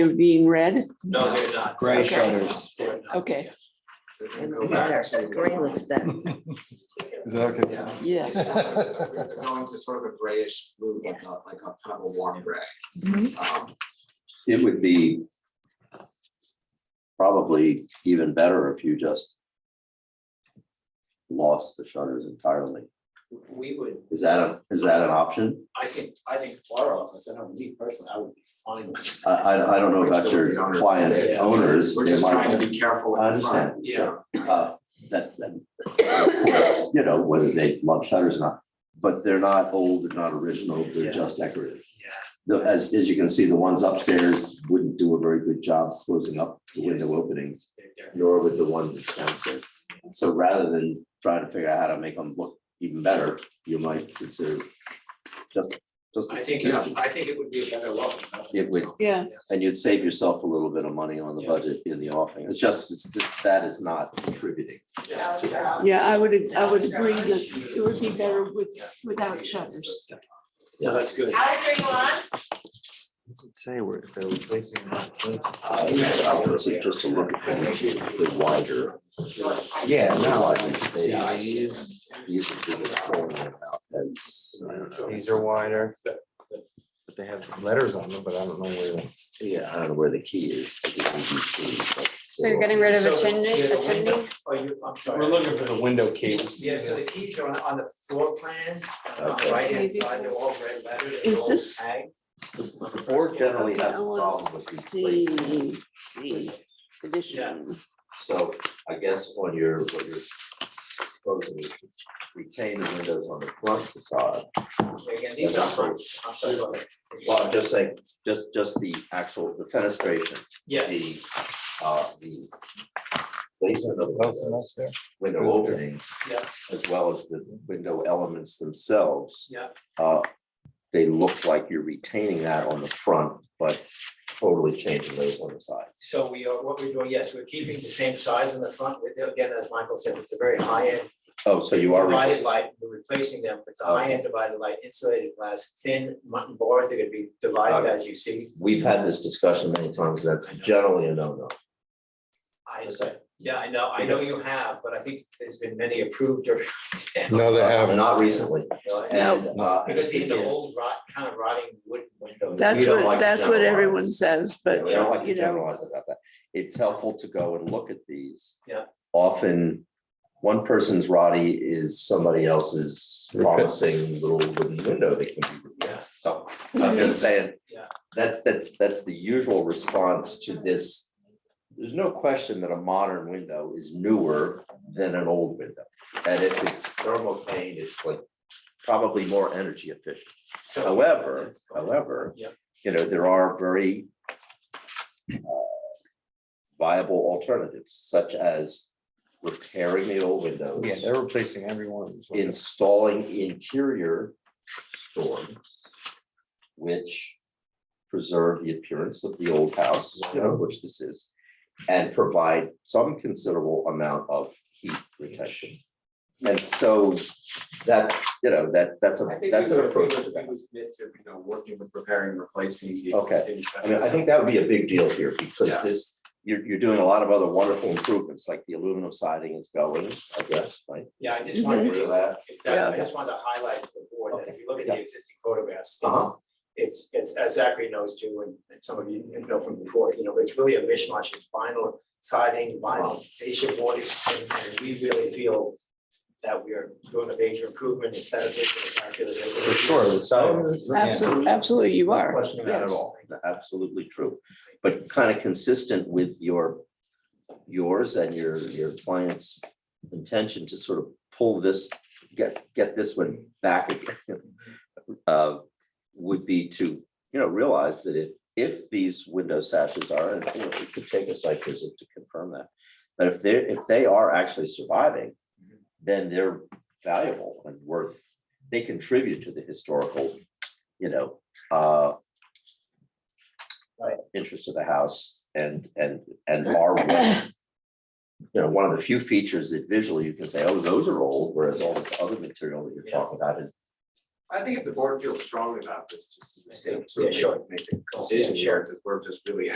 They're being read? No, they're not. Gray Okay. shutters. They're not. Okay, They're gonna go back to- Gray looks better. Is that okay? Yeah. yes. It's sort of- They're going to sort of a grayish blue, like a, like a kind of a warm gray. Um, It would be probably even better if you just lost the shutters entirely. We would, Is that a, is that an option? I think, I think our office, I know me personally, I would be fine with. I, I, I don't know about your client owners. We're they just might- trying to be careful. I in the front. understand. sure. Uh, That, that, you know, whether they love shutters or not, but they're not old, they're not original, they're Yeah. just decorative. Yeah. The, as, as you can see, the ones upstairs wouldn't do a very good job closing up the window Yes. openings. nor would the one that's downstairs. So rather than trying to figure out how to make them look even better, you might consider just, just. a I think, suggestion. it- I think it would be a better welcome. It would. Yeah. And you'd save yourself a little bit of money on the Yeah. budget in the offing. It's just, it's just, that is not contributing. Yeah, I would, I would agree that it would be better with, without shutters. Yeah, that's good. Does it say where they're replacing? I would say just to look at the the wider. Yeah, the no, wider space. is. You can figure it out as, I don't know. These are wider, but but they have letters on them, but I don't know where. Yeah, I don't know where the key is. I think it's easy, but- So you're getting rid of a So, chimney, yeah, the a chimney? window- Oh, you, I'm sorry. for the window keys. Yeah, so the keys are on, on the floor plans, on Okay. the right hand side, they're all red letters. they're Is all this- tagged. The board generally Okay, has I a want problem to with these see places. the addition. So I guess on your, what you're proposing is to retain the windows on the front facade. Again, these are front, I'm sorry about that. Well, I'm just saying, just, just the actual, the fenestration, Yes, the, uh, the placement of the there. window openings, yeah, as well as the window elements themselves. yeah, Uh, They look like you're retaining that on the front, but totally changing those on the sides. so we are, what we're doing, yes, we're keeping the same size in the front, with- again, as Michael said, it's a very high end Oh, so you are. re- divided light, we're replacing them, it's a Oh. high end divided light, insulated glass, thin mutton boards, they're gonna be divided Okay. as you see. We've had this discussion many times, that's I know. generally a no-no. I, yeah, I know, I know you have, but I think there's been many approved or. No, they haven't. Not recently. No, I know. And, uh, Because these the are thing is, old rot, kind of rotting wood windows. That's You don't what, like to that's what generalize. everyone says, but, We don't like to you know, generalize about that. It's helpful to go and look at these. Yeah. Often, one person's Roddy is somebody else's Repair. promising little wooden window that can be repaired. Yeah. So I'm just saying, Yeah. that's, that's, that's the usual response to this. There's no question that a modern window is newer than an old window. And if it's thermal pane, it's like probably more energy efficient. So- However, however, Yep. you know, there are very uh, viable alternatives such as repairing the old windows, Yeah, they're replacing every one of these. windows. installing interior storms, which preserve the appearance of the old house, you know, which this is, and provide some considerable amount of heat protection. And so that, you know, that, that's a, I think that's we an would- we approach to would- that. we would commit to, you know, working with repairing, replacing the Okay. existing. I mean, I sets. think that would be a big deal here because Yeah. this, you're, you're doing a lot of other wonderful improvements, like the aluminum siding is going, I guess, right? Yeah, I just wanted Mhm. Agree with to, that. exactly, I just wanted to highlight to the board that if you look at the Okay. existing photographs, Uh-huh. it's, it's, it's, as Zachary knows too, and- and some of you know from before, you know, it's really a mishmash, it's vinyl siding, vinyl fascia boarding, and and we really feel that we are doing a major improvement aesthetically and architecturally. For sure, the side. absolutely, absolutely you No are. Question about it yes. all, absolutely true, but kind of consistent with your, yours and your, your client's intention to sort of pull this, get, get this one back again. uh, Would be to, you know, realize that if, if these window sashes are, and you know, it could take a site visit to confirm that. But if they're, if they are actually surviving, then they're valuable and worth, they contribute to the historical, you know, uh, interest of the house and, and, and are one- you know, one of the few features that visually you can say, oh, those are old, whereas all this other material that you're talking about is I think if the board feels strongly about this, just. Yeah, sure. Make a decision here, because we're just really